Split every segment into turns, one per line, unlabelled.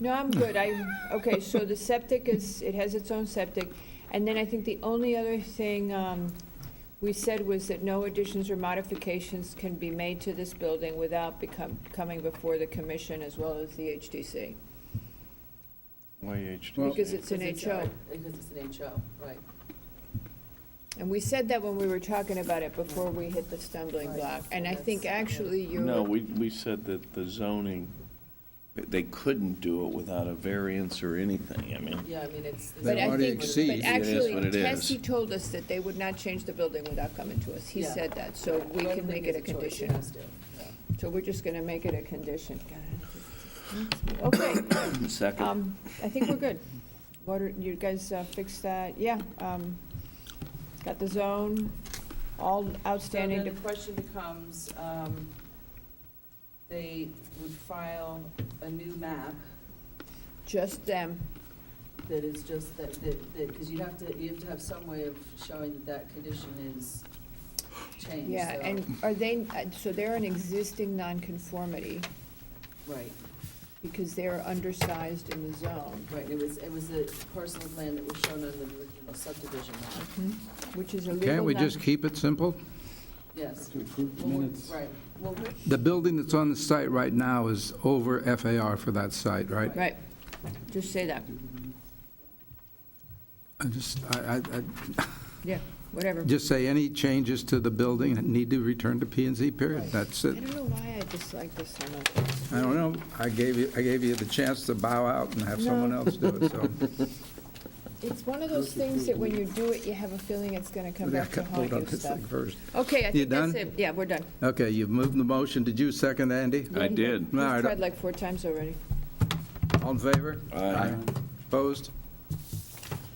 No, I'm good. I, okay, so the septic is, it has its own septic. And then I think the only other thing um, we said was that no additions or modifications can be made to this building without become, coming before the commission as well as the HDC.
Why HDC?
Because it's an HO.
Because it's an HO, right.
And we said that when we were talking about it before we hit the stumbling
Right.
block. And I think
That's- yeah.
actually you're.
No, we, we said that the zoning, they couldn't do it without a variance or anything, I mean.
Yeah, I mean, it's.
But
it's-
I
already
think, but
exceeds.
what
actually,
it is.
Tessie told us that they would not change the building without coming to us. He
Yeah.
said that, so we
Well,
can
I
make
think
it a
it's choice,
condition.
it has to, yeah.
So we're just gonna make it a condition. Okay,
Second,
um, I think we're good. Water, you guys uh, fixed that, yeah, um, got the zone, all
So then
outstanding,
the
dep-
question becomes, um, they would file a new map
just them.
that is just that, that, because you have to, you have to have some way of showing that that condition is changed,
Yeah,
so-
and are they, uh, so they're an existing nonconformity
Right,
because they're undersized in the zone,
right, it was, it was the parcel of land that was shown on the original subdivision map,
hmm? which is a legal.
Can't we just
non-
keep it simple?
yes.
To approve the
Well, we-
minutes.
Right, well, we-
The building that's on the site right now is over FAR for that site, right?
Right, just say that,
I just, I, I, I-
yeah, whatever.
just say any changes to the building need to return to P and Z, period. That's
I
it.
don't know why I dislike this so much.
I don't know, I gave you, I gave you the chance to bow out and have someone
No.
else do it, so.
It's one of those things that when you do it, you have a feeling it's gonna come back to haunt
Hold on
you
this
stuff.
thing first.
Okay, I
You
think that's
done?
it. Yeah, we're done.
Okay, you've moved the motion, did you second, Andy?
I did.
All
We've
right.
tried like four times already.
All in favor?
Aye.
Opposed?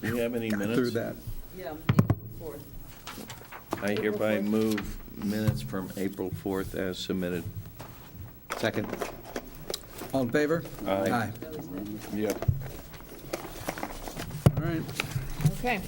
Do you have any
Got Through
minutes?
that.
yeah, April fourth.
I hereby
April
move minutes from April 4th as submitted.
Second. All in favor?
Aye.
Aye.
Yep.
All right.
Okay.